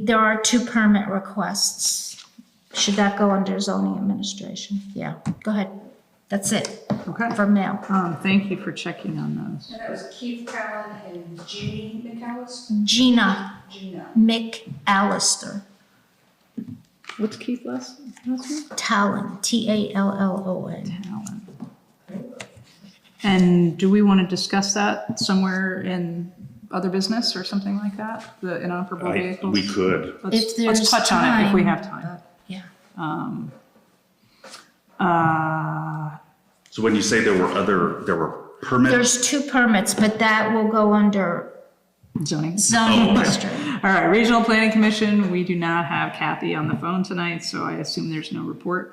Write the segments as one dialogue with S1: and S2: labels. S1: There are two permit requests. Should that go under zoning administration? Yeah, go ahead. That's it
S2: Okay,
S1: for mail.
S2: um, thank you for checking on those.
S3: And that was Keith Cowan and Jeannie McAllis,
S1: Gina
S3: Gina.
S1: McAllister,
S2: What's Keith last, last name?
S1: Talon, T-A-L-L-O-N.
S2: Allen. And do we want to discuss that somewhere in other business or something like that, the inoperable
S4: I,
S2: vehicles?
S4: we could.
S2: Let's,
S1: If
S2: let's
S1: there's
S2: touch on it if we
S1: time.
S2: have time.
S1: Yeah.
S2: Uh,
S4: So when you say there were other, there were permits,
S1: There's two permits, but that will go under
S2: zoning.
S1: zoning
S4: Oh, okay.
S1: administration.
S2: All right, Regional Planning Commission, we do not have Kathy on the phone tonight, so I assume there's no report.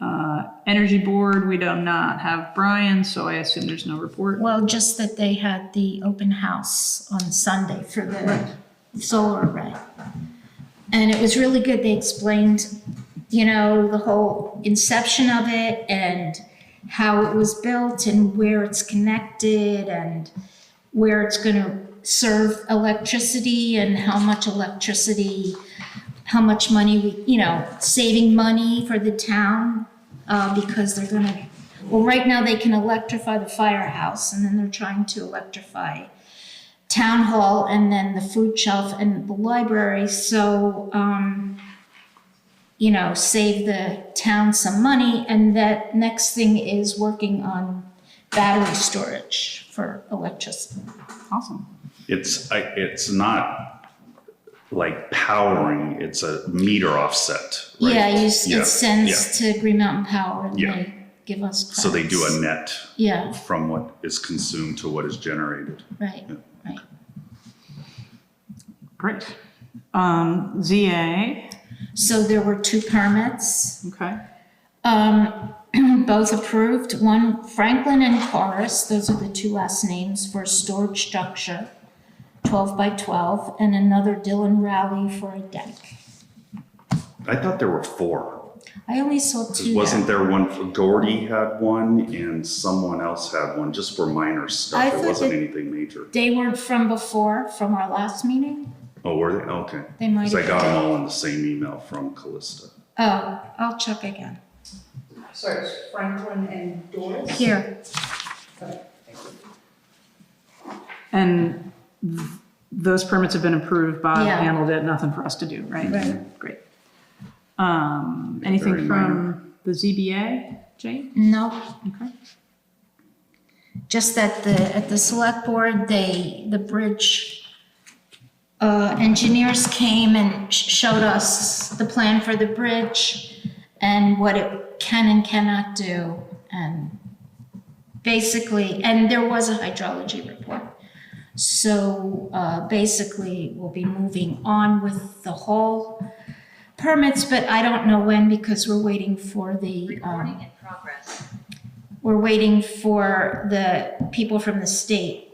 S2: Uh, Energy Board, we do not have Brian, so I assume there's no report.
S1: Well, just that they had the open house on Sunday for the solar array. And it was really good. They explained, you know, the whole inception of it and how it was built and where it's connected and where it's gonna serve electricity and how much electricity, how much money we, you know, saving money for the town, uh, because they're gonna, well, right now they can electrify the firehouse and then they're trying to electrify town hall and then the food shelf and the library, so, um, you know, save the town some money, and that next thing is working on battery storage for electricity.
S2: Awesome.
S4: it's, I, it's not like powering, it's a meter offset, right?
S1: Yeah, you, s-
S4: Yeah,
S1: it sends to Green Mountain Power and
S4: Yeah.
S1: they give us credits.
S4: So they do a net
S1: Yeah,
S4: from what is consumed to what is generated.
S1: right,
S4: Yeah.
S1: right.
S2: Great. Um, ZA,
S1: So there were two permits,
S2: okay.
S1: um, both approved, one Franklin and Corus, those are the two last names for a storage structure, twelve by twelve, and another Dylan Rowley for a deck.
S4: I thought there were four.
S1: I only saw
S4: 'Cause
S1: two.
S4: Wasn't there one, Gordy had one and someone else had one, just for minor
S1: I
S4: stuff. It
S1: thought
S4: wasn't
S1: that-
S4: anything major.
S1: They weren't from before, from our last meeting?
S4: Oh, were they? Okay.
S1: They might
S4: Because I
S1: have
S4: got
S1: been.
S4: them all in the same email from Callista.
S1: Oh, I'll check again.
S3: So it's Franklin and Doris.
S1: Here,
S2: And th- those permits have been approved, Bob
S1: Yeah.
S2: handled it, nothing for us to do, right?
S1: Right.
S2: Great. Um, anything
S4: Very minor.
S2: from the ZBA, Jane?
S1: nope.
S2: Okay.
S1: just that the, at the select board, they, the bridge uh, engineers came and sh- showed us the plan for the bridge and what it can and cannot do, and basically, and there was a hydrology report. So uh, basically, we'll be moving on with the whole permits, but I don't know when, because we're waiting for the, um,
S5: Recording in progress.
S1: we're waiting for the people from the state,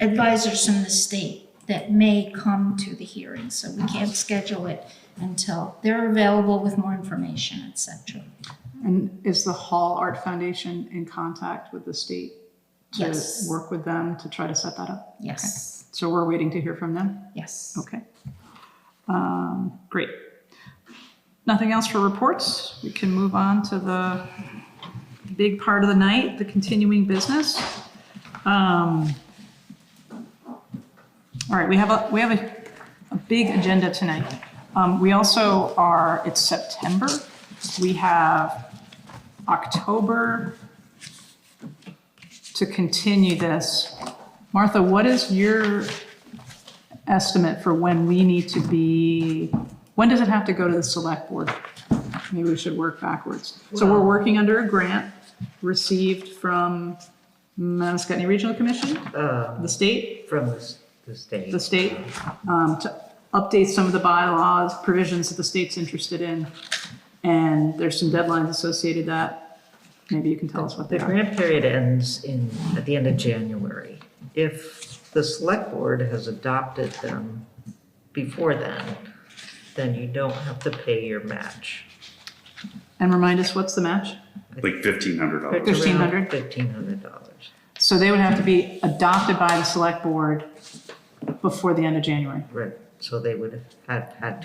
S1: advisors from the state that may come to the hearing, so we can't schedule it until they're available with more information, et cetera.
S2: And is the Hall Art Foundation in contact with the state?
S1: Yes.
S2: To work with them to try to set that up?
S1: Yes,
S2: So we're waiting to hear from them?
S1: yes.
S2: Okay. Um, great. Nothing else for reports? We can move on to the big part of the night, the continuing business. Um, all right, we have a, we have a, a big agenda tonight. Um, we also are, it's September. We have October to continue this. Martha, what is your estimate for when we need to be, when does it have to go to the select board? Maybe we should work backwards. So we're working under a grant received from Manascutney Regional Commission,
S6: uh,
S2: the state,
S6: from the, s- the state.
S2: the state, um, to update some of the bylaws, provisions that the state's interested in. And there's some deadlines associated that. Maybe you can tell us what they
S6: The
S2: are.
S6: grant period ends in, at the end of January. If the select board has adopted them before then, then you don't have to pay your match.
S2: And remind us, what's the match?
S4: Like fifteen hundred dollars.
S2: $1,500?
S6: Fifteen hundred dollars,
S2: So they would have to be adopted by the select board before the end of January.
S6: right, so they would have had